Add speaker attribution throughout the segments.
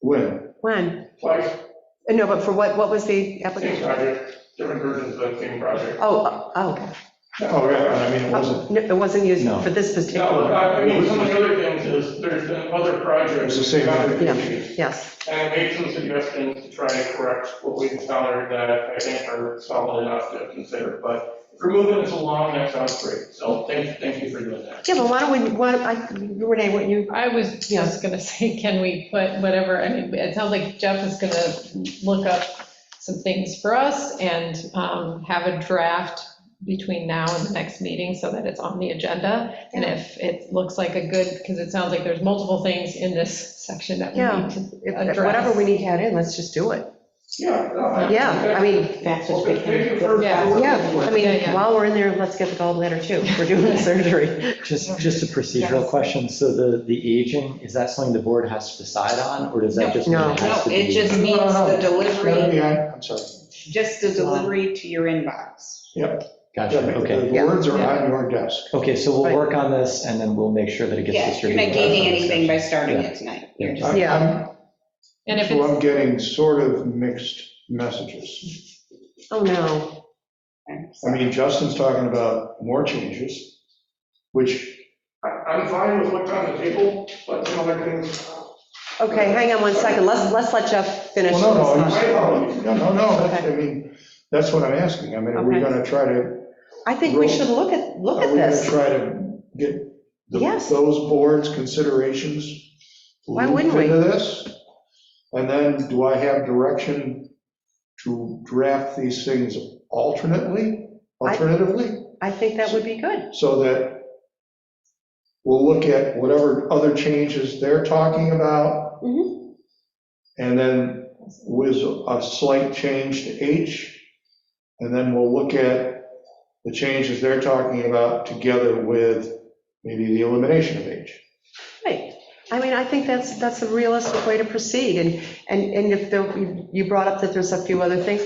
Speaker 1: When?
Speaker 2: When?
Speaker 3: Twice,
Speaker 2: Uh, No, but for what, what was the
Speaker 3: same
Speaker 2: application?
Speaker 3: project, different versions of the same project.
Speaker 2: Oh, oh,
Speaker 1: Oh, yeah, I mean, it
Speaker 2: oh,
Speaker 1: wasn't,
Speaker 2: no, it wasn't used
Speaker 1: No.
Speaker 2: for this
Speaker 3: No,
Speaker 2: particular,
Speaker 3: I I mean, some of the other things is, there's been other projects.
Speaker 1: It was the same
Speaker 3: application.
Speaker 2: yes.
Speaker 3: And I made some suggestions to try and correct what we encountered that I think are solid enough to consider, but if you're moving this along, that sounds great, so thank, thank you for doing that.
Speaker 2: Yeah, but why don't we, why, don't I- Renee, what you,
Speaker 4: I was just gonna say, can we put whatever, I mean, it sounds like Jeff is gonna look up some things for us and um, have a draft between now and the next meeting so that it's on the agenda. And if it looks like a good, because it sounds like there's multiple things in this section that we
Speaker 2: Yeah.
Speaker 4: need to,
Speaker 2: if- if whatever we need to add in, let's just do it.
Speaker 3: Yeah. no, I-
Speaker 2: Yeah, I mean,
Speaker 5: That's what's
Speaker 3: Okay, thank you
Speaker 5: becoming,
Speaker 3: for-
Speaker 4: Yeah.
Speaker 2: yeah, I
Speaker 4: Yeah,
Speaker 2: mean,
Speaker 4: yeah.
Speaker 2: while we're in there, let's get the gallbladder too, we're doing surgery.
Speaker 6: Just, just a procedural
Speaker 5: Yes.
Speaker 6: question, so the, the aging, is that something the board has to decide on, or does that just? mean
Speaker 2: No.
Speaker 6: it
Speaker 5: no,
Speaker 6: has to
Speaker 5: it
Speaker 6: be-
Speaker 5: just means the
Speaker 1: Gotta
Speaker 5: delivery,
Speaker 1: be on- I'm sorry.
Speaker 5: just the delivery to your inbox.
Speaker 6: Gotcha, okay,
Speaker 1: The words are on your desk.
Speaker 6: okay, so we'll
Speaker 2: Right.
Speaker 6: work on this, and then we'll make sure that it gets
Speaker 5: Yeah, you're
Speaker 6: distributed.
Speaker 5: not gaining anything by starting
Speaker 6: Yeah.
Speaker 5: it tonight. You're just-
Speaker 1: I'm-
Speaker 2: Yeah.
Speaker 1: I'm-
Speaker 4: and if
Speaker 1: So I'm
Speaker 4: it's,
Speaker 1: getting sort of mixed messages.
Speaker 2: Oh, no,
Speaker 1: I mean, Justin's talking about more changes, which,
Speaker 3: I- I'm fine with what's on the table, but some other things,
Speaker 2: okay, hang on one second, let's, let's let Jeff finish.
Speaker 1: well, no,
Speaker 2: this
Speaker 1: no,
Speaker 2: up.
Speaker 1: you- no, no, no, that's- I
Speaker 2: Okay.
Speaker 1: mean, that's what I'm asking. I mean, are we
Speaker 2: Okay.
Speaker 1: gonna try to,
Speaker 2: I think we should look at, look
Speaker 1: are
Speaker 2: at
Speaker 1: we gonna
Speaker 2: this,
Speaker 1: try to get the-
Speaker 2: Yes.
Speaker 1: those boards' considerations
Speaker 2: Why wouldn't we?
Speaker 1: looped Into this, and then do I have direction to draft these things alternately,
Speaker 2: I-
Speaker 1: alternatively?
Speaker 2: I think that would be good.
Speaker 1: so that we'll look at whatever other changes they're talking about.
Speaker 2: Mhm.
Speaker 1: And then with a slight change to H, and then we'll look at the changes they're talking about together with maybe the elimination of H.
Speaker 2: Right. I mean, I think that's, that's a realistic way to proceed, and, and, and if there, you- you brought up that there's a few other things,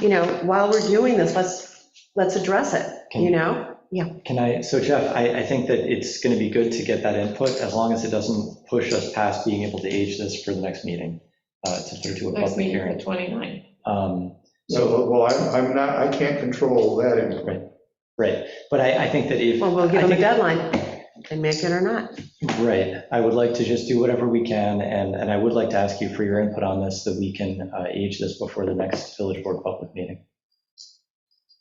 Speaker 2: you know, while we're doing this, let's, let's address it, you know?
Speaker 6: Can I, so Jeff, I, I think that it's gonna be good to get that input, as long as it doesn't push us past being able to age this for the next meeting, uh, to put it to a
Speaker 4: next
Speaker 6: public
Speaker 4: meeting, the
Speaker 6: hearing.
Speaker 4: 29th.
Speaker 6: Um,
Speaker 1: So, well, I'm, I'm not, I can't control that input.
Speaker 6: Right, but I, I think that if,
Speaker 2: Well, we'll give them
Speaker 6: I
Speaker 2: a
Speaker 6: think-
Speaker 2: deadline, and make it or not.
Speaker 6: Right, I would like to just do whatever we can, and, and I would like to ask you for your input on this, that we can uh, age this before the next village board public meeting.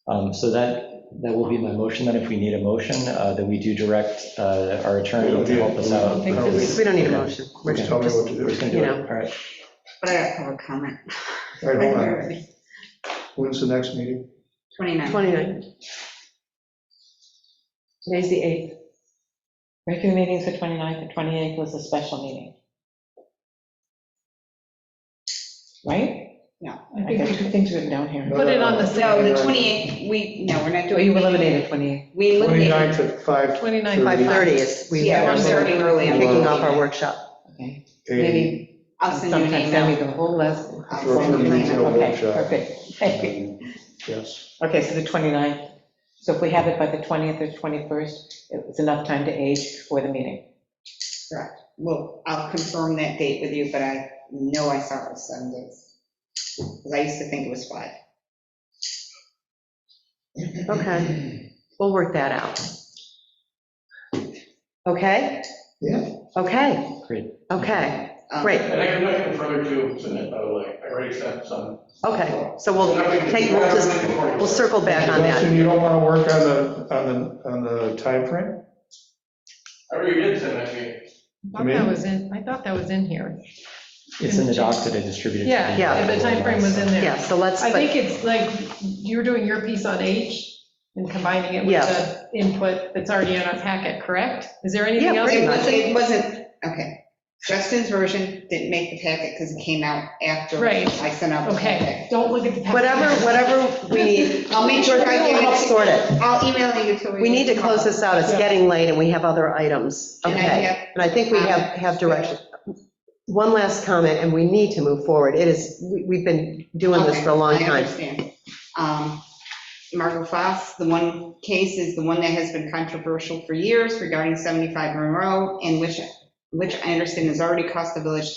Speaker 6: Um, So that, that will be my motion, then if we need a motion, uh, then we do direct uh, our attorney to help us out.
Speaker 4: I don't
Speaker 2: We don't need a
Speaker 6: Okay.
Speaker 2: motion. We're
Speaker 1: Just
Speaker 2: just-
Speaker 1: tell me what to do.
Speaker 6: We're just gonna do it, all right.
Speaker 5: But I have public comment.
Speaker 1: All right, hold on. When's the next meeting?
Speaker 5: 29.
Speaker 2: 29. Today's the 8th.
Speaker 5: Regular meetings the 29th, the 28th was a special meeting. Right? No.
Speaker 4: I think
Speaker 5: two things written down here.
Speaker 1: No,
Speaker 4: Put
Speaker 1: no,
Speaker 4: it
Speaker 1: no.
Speaker 4: on the
Speaker 5: No,
Speaker 4: same,
Speaker 5: the 28th, we, no, we're not doing.
Speaker 7: eliminated 28.
Speaker 5: We eliminated,
Speaker 1: 29th at 5.
Speaker 4: 29th.
Speaker 2: 5:30 is, we
Speaker 5: yeah, we're starting early. on the
Speaker 2: kicking off our
Speaker 5: meeting.
Speaker 2: workshop.
Speaker 7: Okay.
Speaker 1: a-
Speaker 7: Maybe
Speaker 5: I'll send you an
Speaker 7: sometime send me
Speaker 5: email.
Speaker 7: the
Speaker 4: "Oh,
Speaker 7: whole list.
Speaker 5: I'll
Speaker 1: Sure,
Speaker 5: send you an
Speaker 1: sure,
Speaker 5: email.
Speaker 1: sure.
Speaker 7: Okay, perfect. Thank you.
Speaker 1: Yes.
Speaker 7: Okay, so the 29th. So if we have it by the 20th or 21st, it's enough time to age for the meeting.
Speaker 5: Well, I'll confirm that date with you, but I know I saw it was seven days. Because I used to think it was five.
Speaker 2: Okay, we'll work that out. Okay?
Speaker 1: Yeah.
Speaker 2: Okay.
Speaker 6: Great.
Speaker 2: Okay,
Speaker 5: Um,
Speaker 2: great,
Speaker 3: and I have nothing further to submit, by the way, I already sent some.
Speaker 2: okay. So we'll take, we'll just, we'll circle back on that.
Speaker 1: Justin, you don't want to work on the, on the, on the timeframe?
Speaker 3: I already did send that to you.
Speaker 4: I thought that was in, I thought that was in here.
Speaker 6: It's in the doc that I distributed. to
Speaker 4: Yeah,
Speaker 6: you.
Speaker 2: Yeah.
Speaker 4: the timeframe was in there.
Speaker 2: Yeah, so let's,
Speaker 4: I think it's like, you're doing your piece on H and combining it with
Speaker 2: Yes.
Speaker 4: the input that's already in our packet, correct? Is there
Speaker 2: Yeah,
Speaker 4: anything else?
Speaker 2: pretty
Speaker 5: It
Speaker 2: much.
Speaker 5: wasn't, it wasn't, okay. Justin's version didn't make the packet because it came out after I
Speaker 4: Right.
Speaker 5: sent out the
Speaker 4: Okay,
Speaker 5: packet.
Speaker 4: don't look at the packet.
Speaker 2: whatever, whatever we need.
Speaker 5: I'll make sure I
Speaker 2: We'll
Speaker 5: give
Speaker 2: help
Speaker 5: it to
Speaker 2: sort it.
Speaker 5: I'll email you till we.
Speaker 2: We need to close this out, it's
Speaker 4: Yeah.
Speaker 2: getting late and we have other items.
Speaker 5: And I
Speaker 2: Okay,
Speaker 5: have-
Speaker 2: and I think we have, have direction. One last comment, and we need to move forward. It is, we- we've been doing this for a long
Speaker 5: I
Speaker 2: time.
Speaker 5: understand. Um, Margot Foss, the one case is the one that has been controversial for years regarding 75 Monroe, and which, which I understand has already cost the village